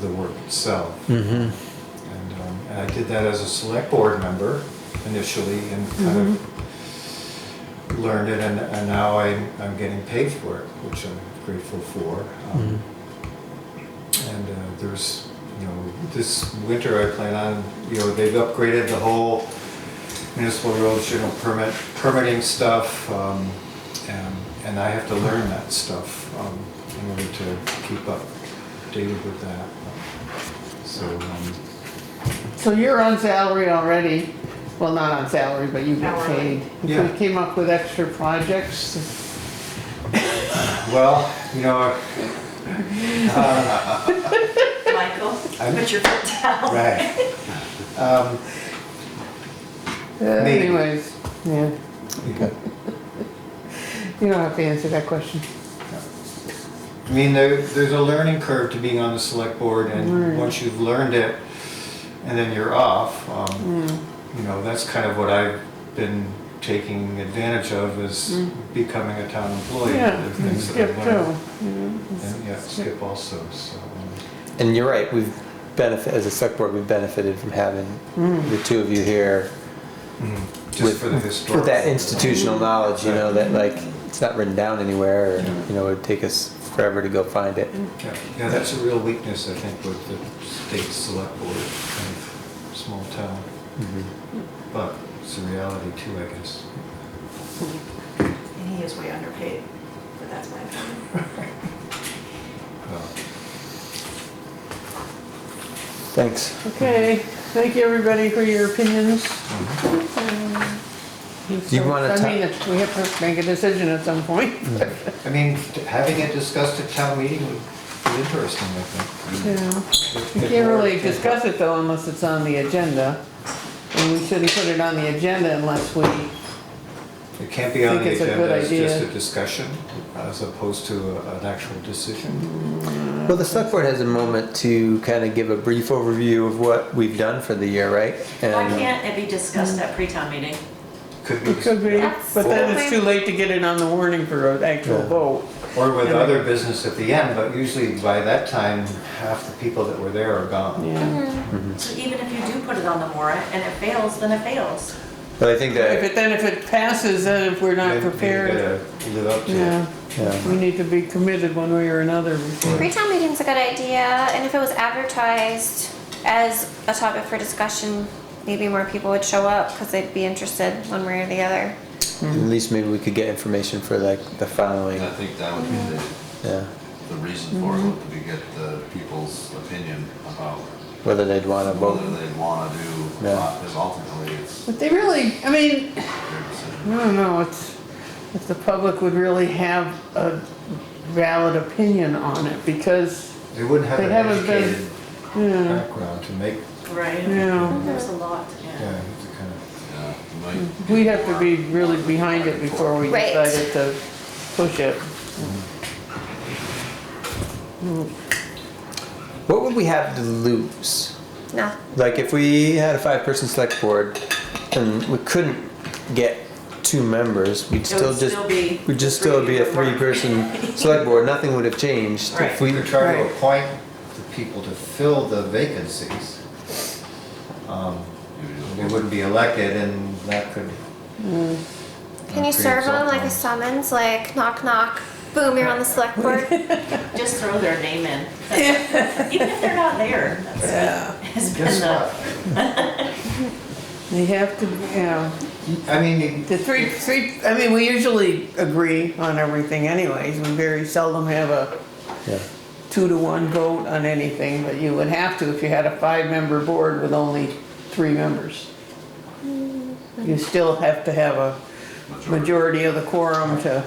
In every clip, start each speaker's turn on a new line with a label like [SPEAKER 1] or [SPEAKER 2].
[SPEAKER 1] the work itself.
[SPEAKER 2] Mm-hmm.
[SPEAKER 1] And, um, and I did that as a select board member initially and kind of learned it and, and now I'm, I'm getting paid for it, which I'm grateful for. Um, And uh, there's, you know, this winter I plan on, you know, they've upgraded the whole municipal roads, you know, permit, permitting stuff. um, And, and I have to learn that stuff um, in order to keep up dated with that. So, um,
[SPEAKER 3] So you're on salary already, well, not on salary, but you get
[SPEAKER 4] Hourly.
[SPEAKER 3] paid.
[SPEAKER 1] Yeah.
[SPEAKER 3] If we came up with extra projects,
[SPEAKER 1] Well, you know,
[SPEAKER 4] Michael,
[SPEAKER 1] I'm-
[SPEAKER 4] put your foot down.
[SPEAKER 1] right. Um,
[SPEAKER 3] uh,
[SPEAKER 1] Maybe.
[SPEAKER 3] anyways, yeah, you don't have to answer that question.
[SPEAKER 1] I mean, there, there's a learning curve to being on the select board, and once you've learned it, and then you're off. Um, you know, that's kind of what I've been taking advantage of is becoming a town employee.
[SPEAKER 3] Mm. Yeah, Mm-hmm.
[SPEAKER 1] the things that
[SPEAKER 3] skip
[SPEAKER 1] I've
[SPEAKER 3] too.
[SPEAKER 1] learned. And, yeah, skip also. So, um,
[SPEAKER 2] And you're right, we've benefit, as a select board, we've benefited from having the two of you here.
[SPEAKER 1] just
[SPEAKER 2] Mm-hmm. with-
[SPEAKER 1] for the historical. Mm-hmm.
[SPEAKER 2] With that institutional knowledge, you know, that like, it's not written down anywhere, or,
[SPEAKER 1] Yeah.
[SPEAKER 2] you know, it'd take us forever to go find it.
[SPEAKER 1] Yeah, yeah, that's a real weakness, I think, with the state select board, kind of small town.
[SPEAKER 2] Mm-hmm.
[SPEAKER 1] But it's a reality too, I guess.
[SPEAKER 4] And he is way underpaid, but that's my opinion.
[SPEAKER 1] Well,
[SPEAKER 2] Thanks.
[SPEAKER 3] Okay, thank you, everybody, for your opinions.
[SPEAKER 2] Do you wanna ta-
[SPEAKER 3] I mean, it's- we have to make a decision at some point.
[SPEAKER 1] I mean, t- having it discussed at town meeting would be interesting, I think.
[SPEAKER 2] Mm-hmm.
[SPEAKER 3] Yeah.
[SPEAKER 1] If-
[SPEAKER 3] You
[SPEAKER 1] if
[SPEAKER 3] can't really
[SPEAKER 1] we're-
[SPEAKER 3] discuss it though unless it's on the agenda. And we shouldn't put it on the agenda unless we,
[SPEAKER 1] It can't be on
[SPEAKER 3] think
[SPEAKER 1] the
[SPEAKER 3] it's a good
[SPEAKER 1] agenda, it's just a
[SPEAKER 3] idea.
[SPEAKER 1] discussion as opposed to a- an actual decision.
[SPEAKER 2] Well, the select board has a moment to kind of give a brief overview of what we've done for the year, right?
[SPEAKER 4] Why
[SPEAKER 2] And
[SPEAKER 4] can't it be discussed at pre-town meeting?
[SPEAKER 1] Could
[SPEAKER 3] it could
[SPEAKER 1] be,
[SPEAKER 3] be,
[SPEAKER 4] That's
[SPEAKER 3] but then it's
[SPEAKER 4] something.
[SPEAKER 3] too late to get it on the warning for an actual
[SPEAKER 2] Yeah.
[SPEAKER 3] vote.
[SPEAKER 1] or with other business at the end, but usually by that time, half the people that were there are gone.
[SPEAKER 3] Yeah.
[SPEAKER 4] So even if you do put it on the warrant and it fails, then it fails.
[SPEAKER 2] But I think
[SPEAKER 3] If
[SPEAKER 2] that,
[SPEAKER 3] it, then if it passes, then if we're not
[SPEAKER 1] Then you
[SPEAKER 3] prepared,
[SPEAKER 1] gotta Live up to it.
[SPEAKER 3] yeah,
[SPEAKER 2] yeah,
[SPEAKER 3] we need to be committed one way or another. before-
[SPEAKER 5] Pre-town meeting's a good idea, and if it was advertised as a topic for discussion, maybe more people would show up because they'd be interested one way or the other.
[SPEAKER 2] at least maybe we could get information for like the following,
[SPEAKER 6] And I think that would be the,
[SPEAKER 2] yeah,
[SPEAKER 6] the reason for it,
[SPEAKER 3] Mm-hmm.
[SPEAKER 6] would be to get the people's opinion about
[SPEAKER 2] whether they'd want to
[SPEAKER 6] whether
[SPEAKER 2] vote.
[SPEAKER 6] they'd wanna do,
[SPEAKER 2] Yeah.
[SPEAKER 6] because ultimately it's
[SPEAKER 3] But they really, I mean,
[SPEAKER 6] their decision.
[SPEAKER 3] I don't know, it's, if the public would really have a valid opinion on it because,
[SPEAKER 1] They wouldn't have
[SPEAKER 3] They
[SPEAKER 1] an
[SPEAKER 3] haven't been-
[SPEAKER 1] educated
[SPEAKER 3] yeah,
[SPEAKER 1] background to make,
[SPEAKER 4] Right.
[SPEAKER 3] yeah.
[SPEAKER 4] There's a lot, yeah.
[SPEAKER 1] yeah, to kind of,
[SPEAKER 6] Yeah, you might-
[SPEAKER 3] We'd have to be really behind it before we
[SPEAKER 5] Right.
[SPEAKER 3] decided to push it.
[SPEAKER 2] What would we have to lose?
[SPEAKER 5] No,
[SPEAKER 2] Like if we had a five-person select board and we couldn't get two members, we'd still
[SPEAKER 4] would
[SPEAKER 2] just,
[SPEAKER 4] still be
[SPEAKER 2] we'd just still be a
[SPEAKER 4] three to one.
[SPEAKER 2] three-person select board, nothing would have changed. If
[SPEAKER 4] Right.
[SPEAKER 2] we,
[SPEAKER 1] we could try to
[SPEAKER 3] Right.
[SPEAKER 1] appoint the people to fill the vacancies. Um,
[SPEAKER 6] you just-
[SPEAKER 3] Mm-hmm.
[SPEAKER 1] They wouldn't be elected and that could.
[SPEAKER 3] Hmm.
[SPEAKER 5] can you serve them like a summons, like knock knock, boom, you're on the select board?
[SPEAKER 4] Just throw their name in. Even if they're not there. Yeah. Has been
[SPEAKER 1] Guess
[SPEAKER 4] the,
[SPEAKER 1] what?
[SPEAKER 3] They have to, yeah,
[SPEAKER 1] I mean, you-
[SPEAKER 3] the three, three, I mean, we usually agree on everything anyways, we very seldom have a
[SPEAKER 2] yeah.
[SPEAKER 3] two to one vote on anything, but you would have to if you had a five-member board with only three members.
[SPEAKER 2] Mm.
[SPEAKER 3] You still have to have a majority of the quorum to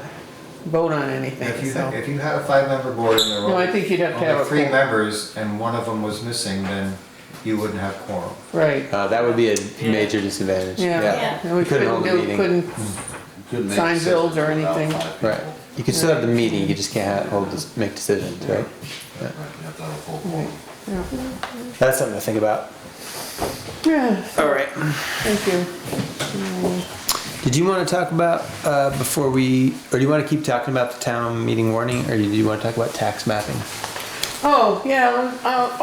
[SPEAKER 3] vote on
[SPEAKER 1] if
[SPEAKER 3] anything,
[SPEAKER 1] you,
[SPEAKER 3] so.
[SPEAKER 1] if you had a five-member board and there were
[SPEAKER 3] No, I think you'd have to have a
[SPEAKER 1] only three
[SPEAKER 3] quorum.
[SPEAKER 1] members and one of them was missing, then you wouldn't have quorum.
[SPEAKER 3] Right,
[SPEAKER 2] Uh, that would be a major disadvantage.
[SPEAKER 3] yeah.
[SPEAKER 4] Yeah.
[SPEAKER 3] And we
[SPEAKER 2] You couldn't
[SPEAKER 3] couldn't
[SPEAKER 2] hold a
[SPEAKER 3] do,
[SPEAKER 2] meeting.
[SPEAKER 3] couldn't,
[SPEAKER 6] you could make
[SPEAKER 3] Sign bills or
[SPEAKER 6] decisions without
[SPEAKER 3] anything.
[SPEAKER 6] five people.
[SPEAKER 2] Right. You can still have the meeting, you just can't ha hold, this- make decisions, right?
[SPEAKER 6] Right, you have to have a full quorum.
[SPEAKER 3] yeah.
[SPEAKER 2] That's something to think about.
[SPEAKER 3] yeah,
[SPEAKER 2] All right.
[SPEAKER 3] thank you.
[SPEAKER 2] Did you want to talk about, uh, before we, or do you want to keep talking about the town meeting warning, or do you want to talk about tax mapping?
[SPEAKER 3] Oh, yeah, I'll-